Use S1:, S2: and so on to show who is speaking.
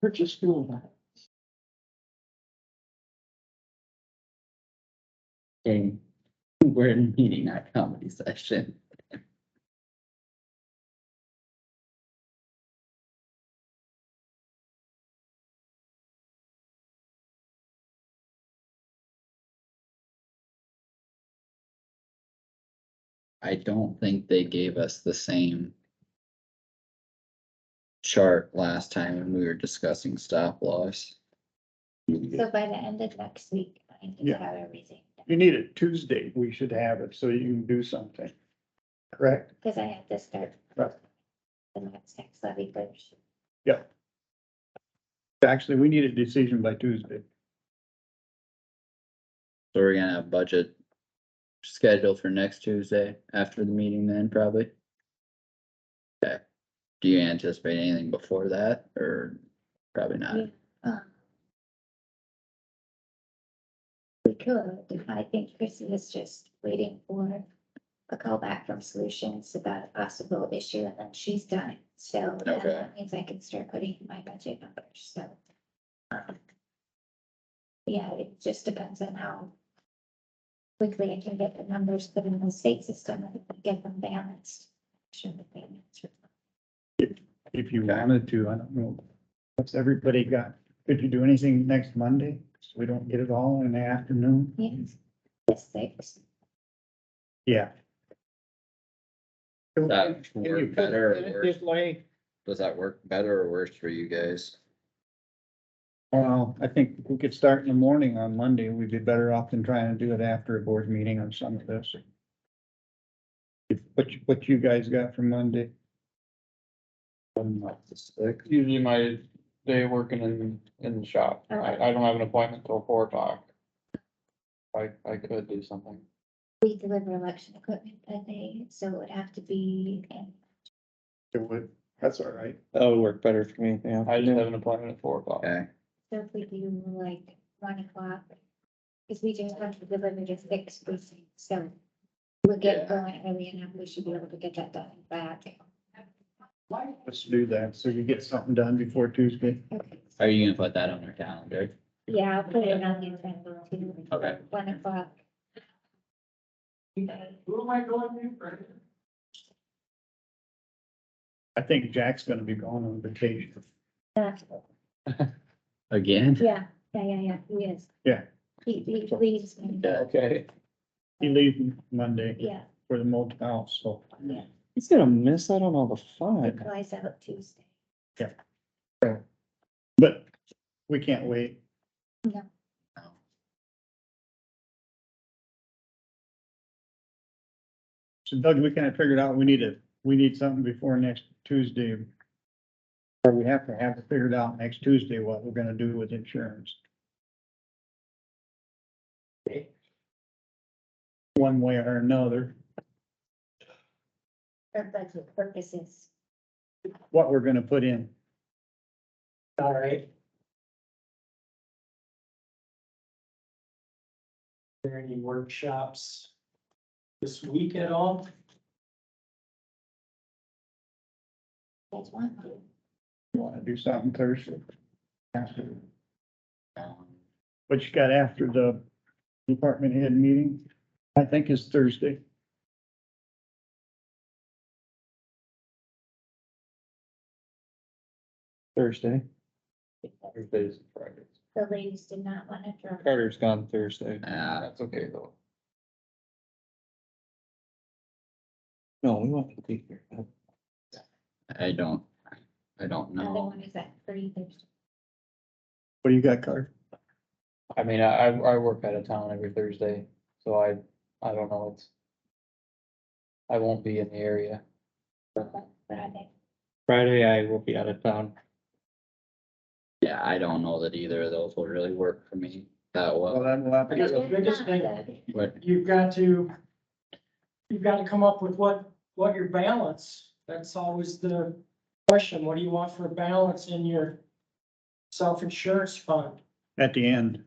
S1: purchase fuel bags. Okay, we're in meeting, not comedy session. I don't think they gave us the same chart last time when we were discussing stop loss.
S2: So by the end of next week, I need to
S3: Yeah.
S2: have everything,
S3: You need it Tuesday, we should have it, so you can do something. Correct?
S2: because I have to start.
S3: Right.
S2: The next tax levy first.
S3: Actually, we need a decision by Tuesday.
S1: So we're gonna have budget scheduled for next Tuesday after the meeting then probably? Okay, do you anticipate anything before that or probably not?
S2: Yeah. Um, We could, I think Chrissy is just waiting for a call back from Solutions about a possible issue, and then she's done. So then
S1: Okay.
S2: that means I can start putting in my budget numbers, so. um, Yeah, it just depends on how quickly I can get the numbers put in the state system and get them balanced. Sure, the payments are-
S3: If you wanted to, I don't know. What's everybody got? Could you do anything next Monday? So we don't get it all in the afternoon?
S2: Yes, the six,
S3: Yeah.
S1: That work better or worse?
S3: way.
S1: Does that work better or worse for you guys?
S3: Well, I think if we could start in the morning on Monday. We'd be better off than trying to do it after a board meeting on some of this. If, what, you- what you guys got for Monday?
S4: usually my day working in, in the shop. I, I don't have an appointment till four o'clock. I, I could do something.
S2: we deliver election equipment that day, so it would have to be in
S3: It would, that's all right.
S5: That would work better for me, yeah.
S4: I just have an appointment at four o'clock.
S1: Okay,
S2: So if we do like one o'clock, because we just have to deliver just six precincts, so we'll get going early enough, we should be able to get that done and back.
S3: Let's do that. So you get something done before Tuesday.
S2: Okay.
S1: are you gonna put that on our calendar?
S2: Yeah, I'll put it on the agenda too.
S1: Okay.
S2: One o'clock.
S3: I think Jack's gonna be going on vacation.
S2: Yeah,
S1: Again?
S2: yeah, yeah, yeah, yeah, he is.
S3: Yeah.
S2: He, he leaves, me.
S1: Yeah.
S4: Okay.
S3: He leaves Monday
S2: yeah,
S3: for the motel, so
S2: yeah,
S5: He's gonna miss out on all the fun.
S2: flies out Tuesday.
S3: but we can't wait. So Doug, we kind of figured out we need to, we need something before next Tuesday. Or we have to have it figured out next Tuesday what we're gonna do with insurance. One way or another,
S2: For budget purposes,
S3: what we're gonna put in.
S6: All right. Are there any workshops this week at all?
S2: that's one.
S3: You wanna do something Thursday? After,
S1: Um,
S3: what you got after the department head meeting, I think is Thursday.
S5: Thursday.
S4: Thursdays and Fridays.
S2: The ladies did not want to draw.
S5: Carter's gone Thursday.
S1: Uh,
S4: That's okay though.
S5: No, we want to be here.
S1: I don't, I don't
S2: Another
S1: know.
S2: one is at three Thursday.
S3: What do you got, Carter?
S4: I mean, I, I I work out of town every Thursday, so I, I don't know, it's. I won't be in the area.
S2: Friday.
S5: Friday, I will be out of town.
S1: Yeah, I don't know that either of those will really work for me that
S3: Well,
S1: well,
S3: then we'll have to
S6: guess the
S2: They're
S6: biggest
S2: not
S6: thing-
S2: the-
S1: but
S6: You've got to, you've got to come up with what, what your balance, that's always the question. What do you want for a balance in your self-insurance fund?
S3: at the end.